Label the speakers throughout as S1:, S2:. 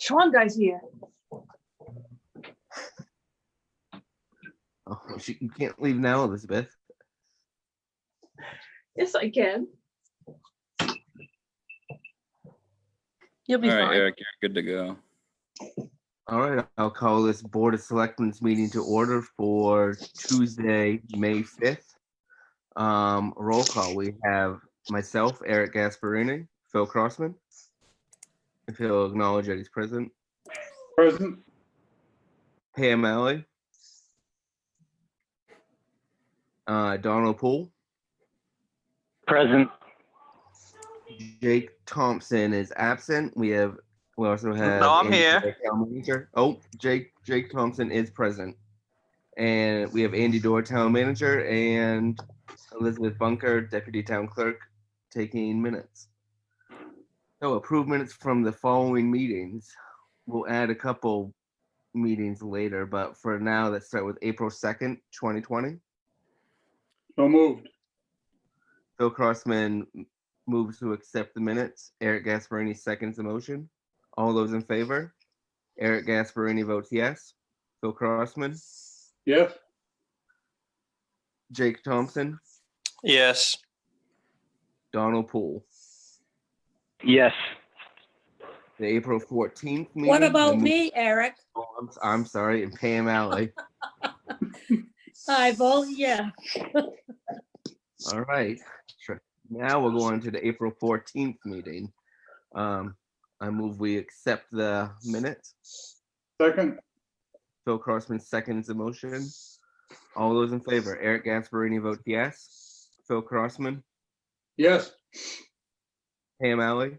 S1: Sean guy's here.
S2: Oh, she, you can't leave now, Elizabeth.
S1: Yes, I can.
S3: You'll be
S4: All right,
S3: fine.
S4: Eric, you're good to go.
S2: All right, I'll call this Board of Selectmen's meeting to order for Tuesday, May 5th. Um, roll call, we have myself, Eric Gasparini, Phil Crossman. If he'll acknowledge that he's present,
S5: Present.
S2: Pam Alley. Uh, Donald Poole,
S5: Present.
S2: Jake Thompson is absent. We have, we also have.
S6: No, I'm
S2: Andy
S6: here.
S2: Dwyer, town manager. Oh, Jake, Jake Thompson is present. And we have Andy Dorr, town manager, and Elizabeth Bunker, deputy town clerk, taking minutes. So approve minutes from the following meetings. We'll add a couple meetings later, but for now, let's start with April second, twenty twenty.
S5: So moved.
S2: Phil Crossman moves to accept the minutes. Eric Gasparini seconds the motion. All those in favor? Eric Gasparini votes yes. Phil Crossman,
S5: Yes.
S2: Jake Thompson,
S6: Yes.
S2: Donald Poole.
S5: Yes.
S2: The April 14th meeting.
S3: What about
S2: the-
S3: me, Eric?
S2: Oh, I'm, I'm sorry, and Pam Alley.
S3: I vote yeah.
S2: All right. Sure. Now we'll go on to the April 14th meeting. Um, I move we accept the minutes.
S5: Second.
S2: Phil Crossman seconds the motion. All those in favor, Eric Gasparini votes yes. Phil Crossman,
S5: Yes.
S2: Pam Alley,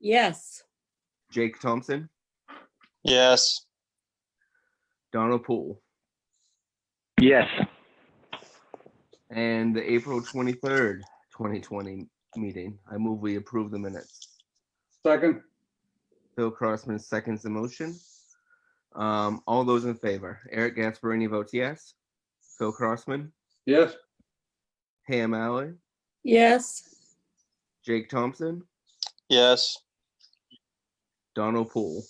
S3: Yes.
S2: Jake Thompson,
S6: Yes.
S2: Donald Poole.
S5: Yes.
S2: And the April 23rd, 2020 meeting, I move we approve the minutes.
S5: Second.
S2: Phil Crossman seconds the motion. Um, All those in favor, Eric Gasparini votes yes. Phil Crossman,
S5: Yes.
S2: Pam Alley,
S3: Yes.
S2: Jake Thompson,
S6: Yes.
S2: Donald Poole.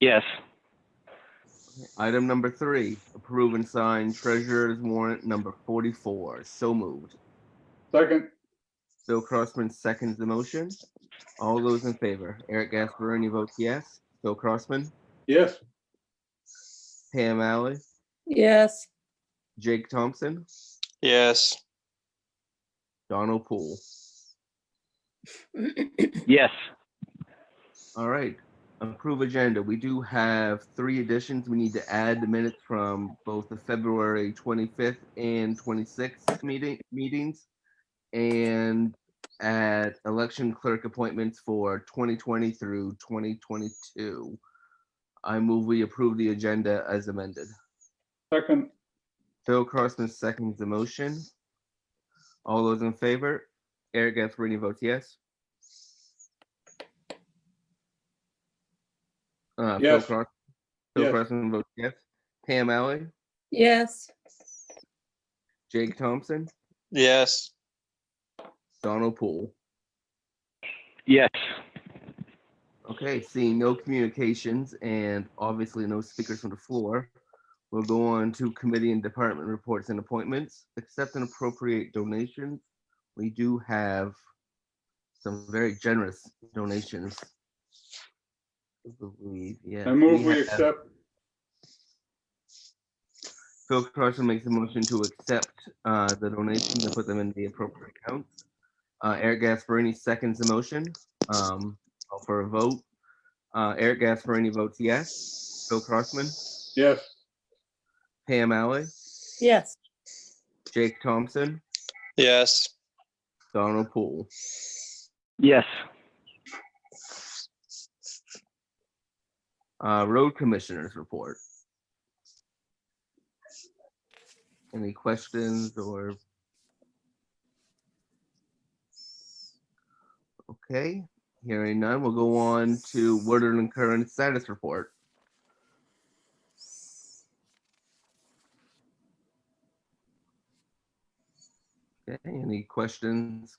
S5: Yes.
S2: Item number three, approve and sign treasurer's warrant number forty-four. So moved.
S5: Second.
S2: Bill Crossman seconds the motion. All those in favor, Eric Gasparini votes yes. Bill Crossman,
S5: Yes.
S2: Pam Alley,
S3: Yes.
S2: Jake Thompson,
S6: Yes.
S2: Donald Poole.
S5: Yes.
S2: All right, approve agenda. We do have three additions. We need to add the minutes from both the February twenty-fifth and twenty-sixth meeting, meetings. And at election clerk appointments for twenty twenty through twenty twenty-two. I move we approve the agenda as amended.
S5: Second.
S2: Phil Crossman seconds the motion. All those in favor? Eric Gasparini votes yes. Uh, Phil
S5: Yes.
S2: Cross- Phil
S5: Yes.
S2: Crossman votes yes. Pam Alley,
S3: Yes.
S2: Jake Thompson,
S6: Yes.
S2: Donald Poole.
S5: Yes.
S2: Okay, seeing no communications and obviously no speakers from the floor, we'll go on to committee and department reports and appointments, accept and appropriate donations. We do have some very generous donations. I believe, yeah.
S5: I move we
S2: have-
S5: accept.
S2: Phil Carson makes a motion to accept uh, the donations and put them in the appropriate accounts. Uh, Eric Gasparini seconds the motion. Um, call for a vote. Uh, Eric Gasparini votes yes. Phil Crossman,
S5: Yes.
S2: Pam Alley,
S3: Yes.
S2: Jake Thompson,
S6: Yes.
S2: Donald Poole.
S5: Yes.
S2: Uh, road commissioners report. Any questions or? Okay, hearing none, we'll go on to Woodard and Curran status report. Okay, any questions,